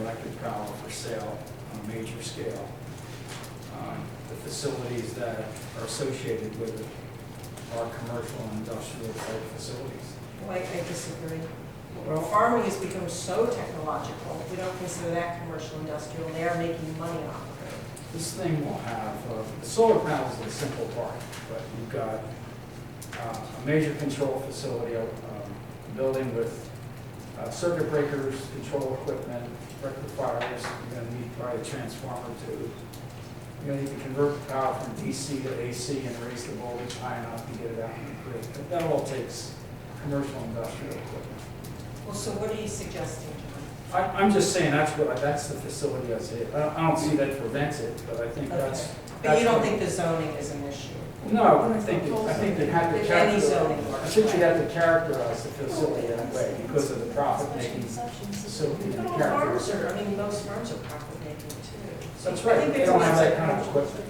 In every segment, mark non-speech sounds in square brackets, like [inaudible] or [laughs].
electric power for sale on a major scale. Um, The facilities that are associated with it are commercial and industrial type facilities. Well, I I disagree. Well- Farming has become so technological, we don't consider that commercial industrial, they are making money off of it. This thing will have, uh, the solar panels is a simple part, but you've got uh, a major control facility, um, a building with uh, circuit breakers, control equipment, rectifiers, you're going to need probably a transformer too. You're going to need to convert the power from DC to AC and raise the voltage high enough to get it out in the grid. But that all takes commercial industrial equipment. Well, so what are you suggesting, John? I- I'm just saying, that's what, that's the facility I see. I I don't see that prevents it, but I think that's Okay. But that's you don't what- think the zoning is an issue? No, I think, it- I think you have to Any characterize, zoning works, I think you right. have to characterize the facility that way because of the profit making. facility and But the all farms character. are, I mean, most farms are profit making too. That's I right, think they there's don't have lots that of- kind of equipment.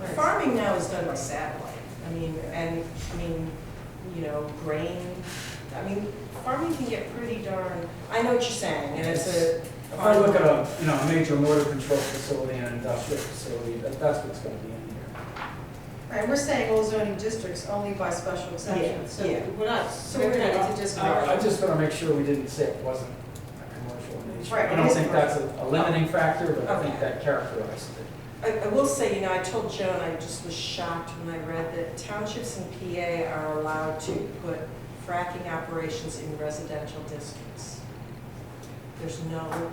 Right. Farming now is done by satellite, I mean, and, I mean, you know, grain, I mean, farming can get pretty darn, I know what you're saying, and it's a. If I look at a, you know, a major motor control facility and an industrial facility, that, that's what's gonna be in here. Right, we're saying all zoning districts only by special exception, so yeah. we're not, so we're not into just. I I just wanna make sure we didn't say it wasn't a commercial in nature. Right, I it don't is think that's a a limiting factor, but I think Okay. that characterizes it. I, I will say, you know, I told Joan, I just was shocked when I read that townships in PA are allowed to put fracking operations in residential districts. There's no,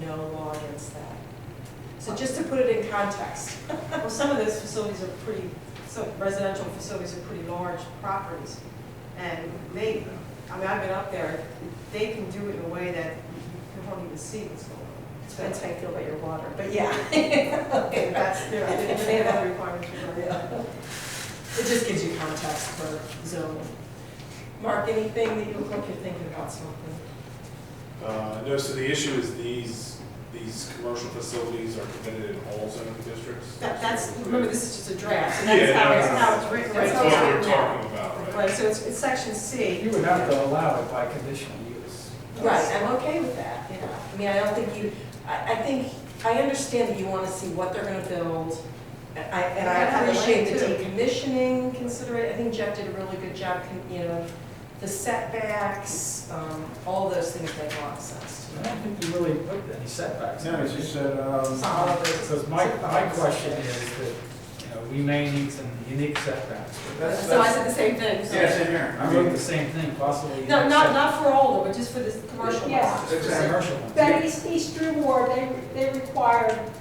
no law against that. So just to put it in context, Well, some of those facilities are pretty, some residential facilities are pretty large properties. And they, I mean, I've been up there, they can do it in a way that you can hardly even see what's going on. So that's how I feel about your water, but yeah. [laughs] okay, that's their, they have other requirements. for that. It just gives you context for zoning. Mark, anything that you look like you're thinking about something? Uh, No, so the issue is these, these commercial facilities are permitted in all zoning districts? That, that's, remember, this is just a draft, so Yeah, that's how no, it's, no, no. how it's written right That's now. what we're talking about, right? Right, so it's, it's section C. You would have to allow it by conditional use. Right, I'm okay with that, yeah. I mean, I don't think you, I, I think, I understand that you want to see what they're gonna build. And I, and Yeah, I I like appreciate the it too. decommissioning considerate, I think Jeff did a really good job, con- you know, the setbacks, um, all those things make a lot of sense I don't think you really put any setbacks. No, it's just that, um, to me. Because my, my question is that, you know, we may need some unique setbacks, but that's, So I that's, said the same thing, so. yeah, same here. I I wrote mean, the same thing, possibly. No, not, not for all of them, but just for this commercial ones. Yeah. It's a commercial one. But East, East Drewmore, they, they require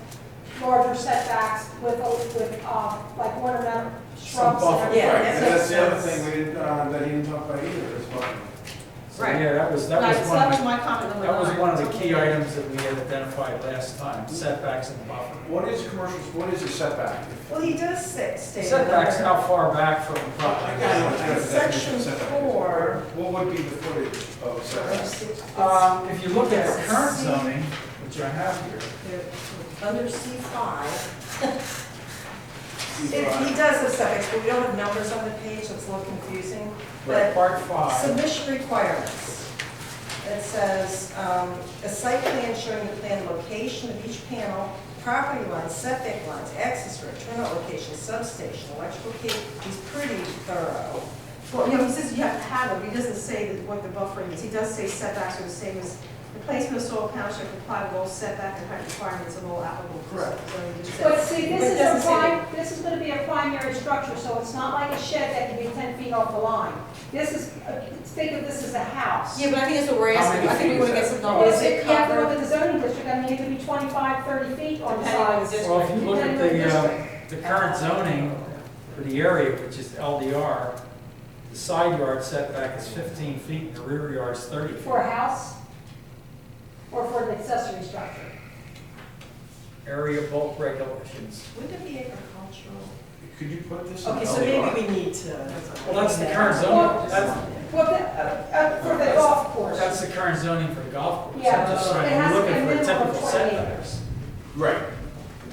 larger setbacks with, with, uh, like ornamental shrubs Some and buffer. everything. Yeah, Right, that and that's makes the other sense. thing we didn't, uh, that he didn't talk about either, is what, So, yeah, that was, that Right, was so one that of was the, my comment number that was nine. one of the key items that we had identified last time, setbacks and buffer. what is commercial, what is a setback? Well, he does say, state. Setbacks, how far back from the I property? gotta look at the definition Section of setback. four. What would be the footage of setback? Um, if you look at the current zoning, which I have here, They're Under C five, C he does have setbacks, but we don't have numbers on the page, so it's a little confusing. But part five, Submission requirements. It says, um, a site plan showing the planned location of each panel, property lines, setback lines, access road, turnout location, substation, electrical cable, he's pretty thorough. Well, you know, he says you have to have them, but he doesn't say that what the buffering is, he does say setbacks are the same as, the placement of soil panels should comply with all setback and height requirements of all applicable. Correct. zoning districts. But see, But it this doesn't is a say that- prime, this is gonna be a primary structure, so it's not like a shed that can be ten feet off the line. This is, uh, think of this as a house. but I think that's what we're How asking. many I think we feet wanna is get some Well, if you have to look at the zoning district, I mean, it could be 25, 30 feet on the Depending on the sides. district. well, if you look at Depending on the, the um, the current zoning for the area, which is LDR, the side yard setback is fifteen feet, and the rear yard is thirty feet. For a house or for an accessory structure. Area bulk regulations. Would it be agricultural? Could you put this in Okay, so LDR? maybe we need to. Well, that's the current zoning, that's, Well, the, uh, uh, for the golf course. that's the current zoning for the golf course. Yeah, I'm just it trying, has we're to be a looking for minimum of typical 20 setbacks. Right,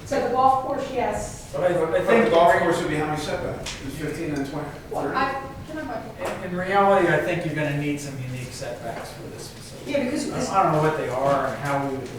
So the golf course, yes. But I, I I think think, the golf course would be how many setbacks? Is fifteen and twenty, Well, thirty? I, can I, in, in reality, I think you're gonna need some unique setbacks for this facility. Yeah, because I don't know what they are and how we would